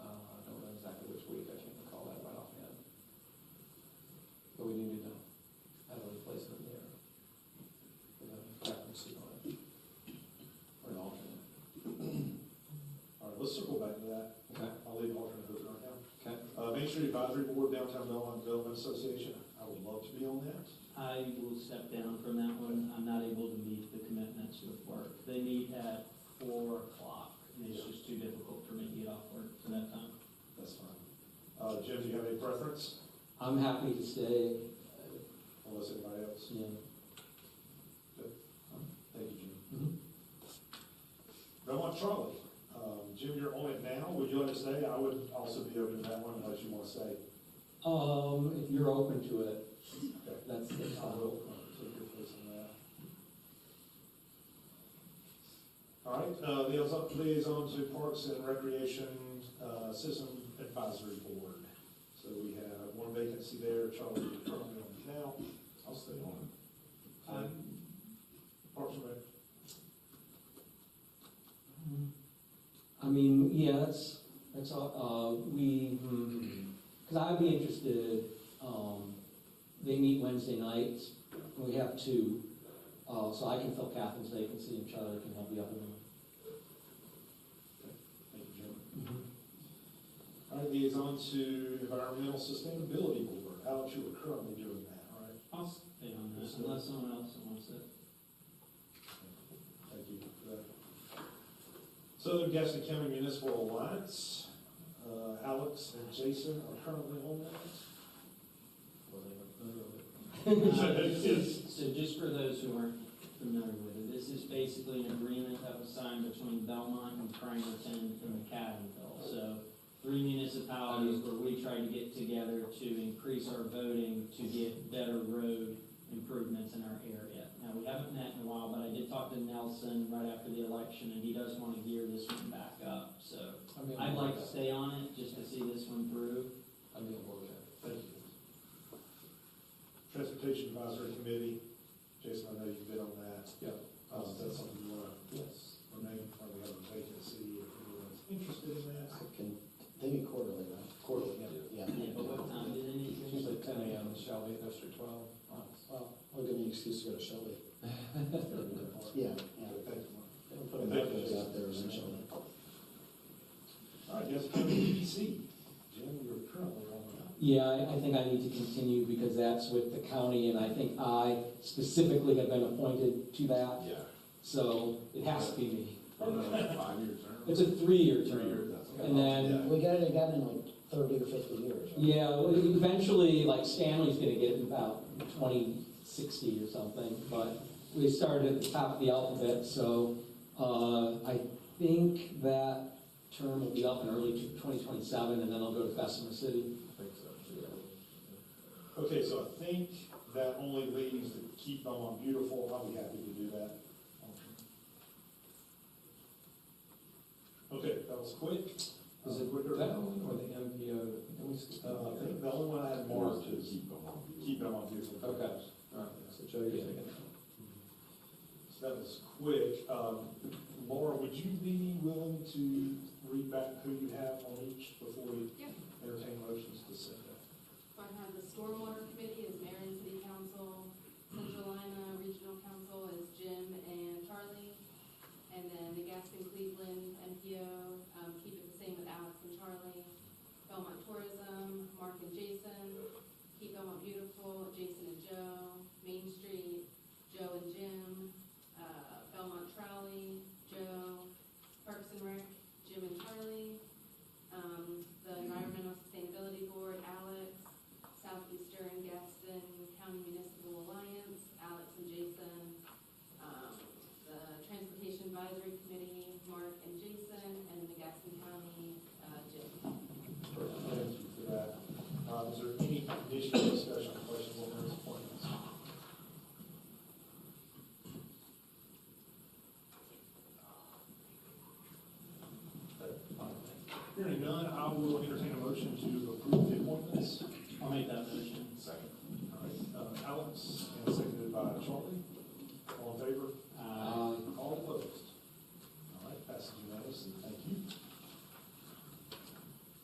Uh, Uh, Main Street Advisory Board, Downtown Belmont Development Association, I would love to be on that. I will step down from that one. I'm not able to meet the commitments with work. They meet at four o'clock, and it's just too difficult for me to get off work for that time. That's fine. Uh, Jim, do you have any preference? I'm happy to stay, Unless anybody else? you know, Thank you, Jim. Mhm. Belmont Trolley, um, Jim, you're on it now, would you like to stay? I would also be open to that one unless you want to stay. Um, if you're open to it, that's the I time. will uh, take your place on that. All right, uh, liaison- liaison to Parks and Recreation uh, System Advisory Board. So we have one vacancy there, Charlie, you're currently on it now, I'll stay on. it. Parks and Rec, I mean, yeah, that's, that's all, uh, we, because I'd be interested, um, they meet Wednesday nights, and we have two, uh, so I can fill Catherine's vacancy and Charlie can help the other one. thank you, Jim. All right, liaison to Environmental Sustainability Board, Alex, you are currently doing that, all right? I'll stay on that unless someone else wants it. Thank you for that. Southern Gaston County Municipal Alliance, uh, Alex and Jason are currently on that. Uh, this is- So just for those who aren't familiar with it, this is basically an agreement that was signed between Belmont and Framerton and McAdenville. So three municipalities where we try to get together to increase our voting to get better road improvements in our area. Now, we haven't met in a while, but I did talk to Nelson right after the election, and he does want to gear this one back up. So I'd uh, like to stay on it just to see this one through. I'd be on board with that. Thank you. Transportation Advisory Committee, Jason, I know you've been on that. Yeah. Uh, is that something you want to Yes, remain, or we have a vacancy, if anyone's interested in that? I can, they meet quarterly, right? Quarterly, yeah. Yeah, but what time did it? It's finish? Usually ten AM in Shelby, goes through twelve. Oh, Well, we'll give you an excuse to go to Shelby. Yeah, yeah. Thank you. We'll put a message out there in Shelby. All right, Gaston County EDC, Jim, you're currently on that. Yeah, I, I think I need to continue because that's with the county and I think I specifically have been appointed to that, Yeah. so it has to be me. Five-year It's term? a three-year term. And then, We got it again in like thirty or fifty years. right? yeah, well, eventually, like Stanley's gonna get it in about twenty sixty or something, but we started at the top of the alphabet, so, uh, I think that term will be up in early twenty twenty-seven and then I'll go to Bessemer City. I think so. Okay, so I think that only leaves the Keep Belmont Beautiful, I'll be happy to do that. Okay, that was quick. Is it quicker? That one or the MPO? Can we skip that? Uh, I think the only one I had More marked to is keep them on. Keep Belmont Beautiful. Okay. All right, so Joe, you're taking that. So that was quick. Um, Laura, would you be willing to read back who you have on each before we Yep. entertain motions to send that? I have the stormwater committee is Marion City Council, Central Lima Regional Council is Jim and Charlie. And then the Gaston Cleveland MPO, um, keep it the same with Alex and Charlie. Belmont Tourism, Mark and Jason, keep Belmont Beautiful, Jason and Joe, Main Street, Joe and Jim, uh, Belmont Trolley, Joe, Parks and Rec, Jim and Charlie, um, the Environmental Sustainability Board, Alex, Southeastern Gaston County Municipal Alliance, Alex and Jason, um, the Transportation Advisory Committee, Mark and Jason, and the Gaston County, uh, Jim. Thank you for that. Uh, Is there any additional discussion, or questions on those appointments? Hearing none, I will entertain a motion to approve the appointments. I'll make that motion. Second. All right, uh, Alex, and seconded by Charlie. All in favor?